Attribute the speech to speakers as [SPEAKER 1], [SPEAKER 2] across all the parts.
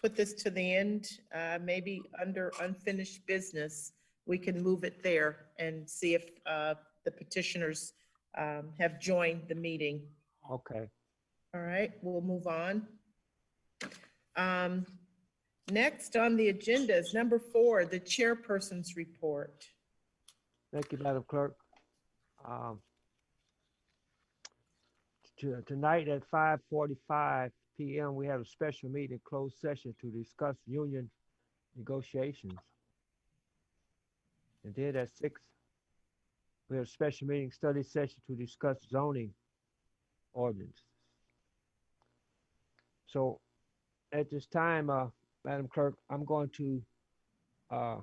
[SPEAKER 1] put this to the end, uh, maybe under unfinished business, we can move it there and see if uh, the petitioners um, have joined the meeting.
[SPEAKER 2] Okay.
[SPEAKER 1] All right, we'll move on. Um, Next on the agenda is number four, the chairperson's report.
[SPEAKER 2] Thank you, Madam Clerk. Um, to- Tonight at five forty-five PM, we have a special meeting, closed session to discuss union negotiations. And then at six, we have a special meeting, study session to discuss zoning ordinance. So at this time, uh, Madam Clerk, I'm going to, uh,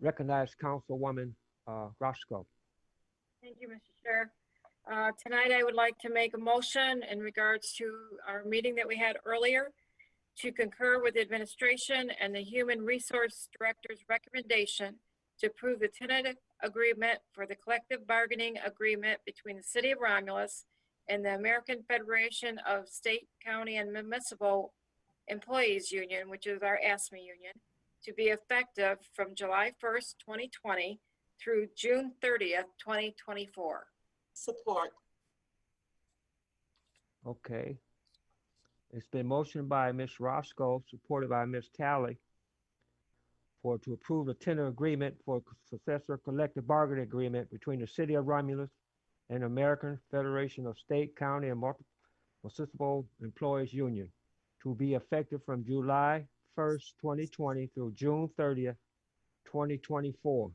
[SPEAKER 2] recognize Councilwoman uh, Roscoe.
[SPEAKER 3] Thank you, Mr. Chair. Uh, Tonight, I would like to make a motion in regards to our meeting that we had earlier to concur with the administration and the Human Resource Director's recommendation to approve the tentative agreement for the collective bargaining agreement between the City of Romulus and the American Federation of State, County, and Municipal Employees Union, which is our ASME E union, to be effective from July 1st, 2020 through June 30th, 2024.
[SPEAKER 4] Support.
[SPEAKER 2] Okay. It's been motioned by Ms. Roscoe, supported by Ms. Tally for to approve a tentative agreement for successor collective bargaining agreement between the City of Romulus and American Federation of State, County, and Multi- Municipal Employees Union to be effective from July first, twenty twenty through June thirtieth, twenty twenty-four.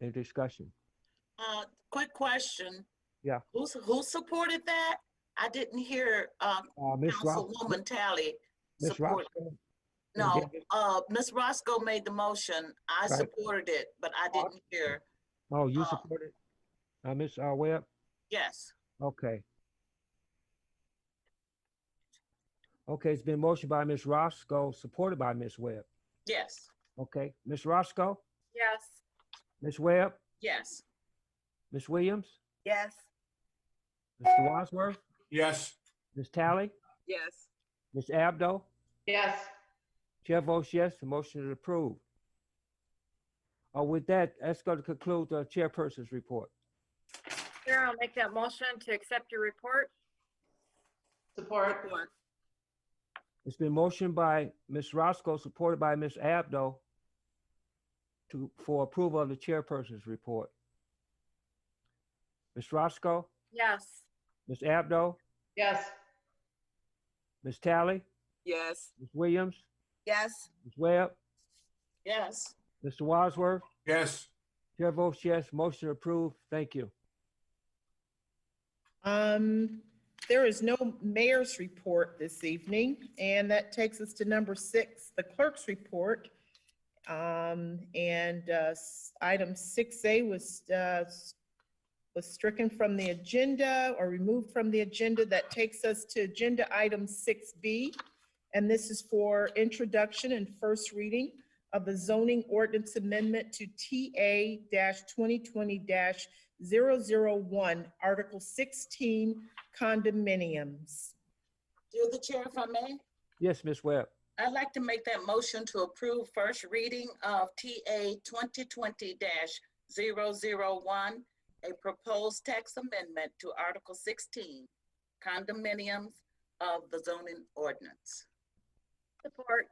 [SPEAKER 2] Any discussion?
[SPEAKER 4] Uh, quick question.
[SPEAKER 2] Yeah.
[SPEAKER 4] Who's, who supported that? I didn't hear, um,
[SPEAKER 2] Uh, Ms. Ros-
[SPEAKER 4] Councilwoman Tally.
[SPEAKER 2] Ms.
[SPEAKER 4] support.
[SPEAKER 2] Roscoe?
[SPEAKER 4] No,
[SPEAKER 2] David?
[SPEAKER 4] uh, Ms. Roscoe made the motion. I
[SPEAKER 2] Right.
[SPEAKER 4] supported it, but I didn't hear.
[SPEAKER 2] Oh, you
[SPEAKER 4] Uh,
[SPEAKER 2] support it? Uh, Ms. uh, Webb?
[SPEAKER 4] Yes.
[SPEAKER 2] Okay. Okay, it's been motioned by Ms. Roscoe, supported by Ms. Webb.
[SPEAKER 4] Yes.
[SPEAKER 2] Okay, Ms. Roscoe,
[SPEAKER 3] Yes.
[SPEAKER 2] Ms. Webb,
[SPEAKER 4] Yes.
[SPEAKER 2] Ms. Williams,
[SPEAKER 1] Yes.
[SPEAKER 2] Mr. Wadsworth,
[SPEAKER 5] Yes.
[SPEAKER 2] Ms. Tally,
[SPEAKER 4] Yes.
[SPEAKER 2] Ms. Abdo.
[SPEAKER 6] yes,
[SPEAKER 2] Chair votes yes, the motion is approved. Uh, with that, that's going to conclude the chairperson's report.
[SPEAKER 3] Chair, I'll make that motion to accept your report.
[SPEAKER 6] support,
[SPEAKER 2] It's been motioned by Ms. Roscoe, supported by Ms. Abdo to, for approval of the chairperson's report. Ms. Roscoe,
[SPEAKER 3] Yes.
[SPEAKER 2] Ms. Abdo,
[SPEAKER 6] yes.
[SPEAKER 2] Ms. Tally,
[SPEAKER 4] Yes.
[SPEAKER 2] Ms. Williams,
[SPEAKER 4] Yes.
[SPEAKER 2] Ms. Webb,
[SPEAKER 4] Yes.
[SPEAKER 2] Mr. Wadsworth.
[SPEAKER 5] Yes.
[SPEAKER 2] Chair votes yes, motion approved. Thank you.
[SPEAKER 1] Um, there is no mayor's report this evening, and that takes us to number six, the clerk's report. Um, and, uh, s- item six A was, uh, s- was stricken from the agenda or removed from the agenda. That takes us to agenda item six B. And this is for introduction and first reading of the zoning ordinance amendment to TA twenty twenty 001, Article 16, condominiums.
[SPEAKER 4] Through the chair, if I may,
[SPEAKER 2] Yes, Ms. Webb.
[SPEAKER 4] I'd like to make that motion to approve first reading of TA twenty twenty 1 a proposed tax amendment to Article sixteen, condominiums of the zoning ordinance.
[SPEAKER 3] Support.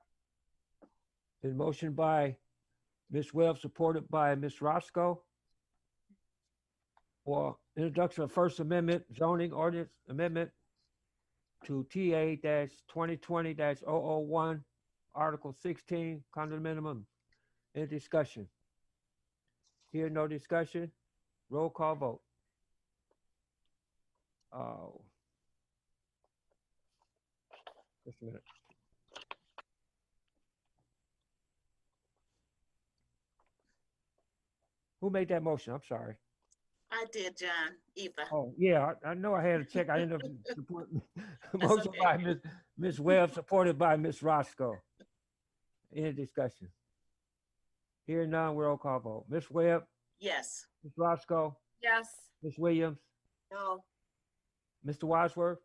[SPEAKER 2] Been motioned by Ms. Webb, supported by Ms. Roscoe. For introduction of First Amendment zoning ordinance amendment to TA twenty twenty oh one Article sixteen, condominium. Any discussion? Here, no discussion. Roll call vote. Oh. Just a minute. Who made that motion? I'm sorry.
[SPEAKER 4] I did, John, Eva.
[SPEAKER 2] Oh, yeah, I, I know I had to check. I ended up supporting. Motion
[SPEAKER 4] okay.
[SPEAKER 2] by Ms. Ms. Webb, supported by Ms. Roscoe. Any discussion? Here none, roll call vote. Ms. Webb,
[SPEAKER 4] Yes.
[SPEAKER 2] Ms. Roscoe,
[SPEAKER 3] Yes.
[SPEAKER 2] Ms. Williams,
[SPEAKER 4] No.
[SPEAKER 2] Mr. Wadsworth,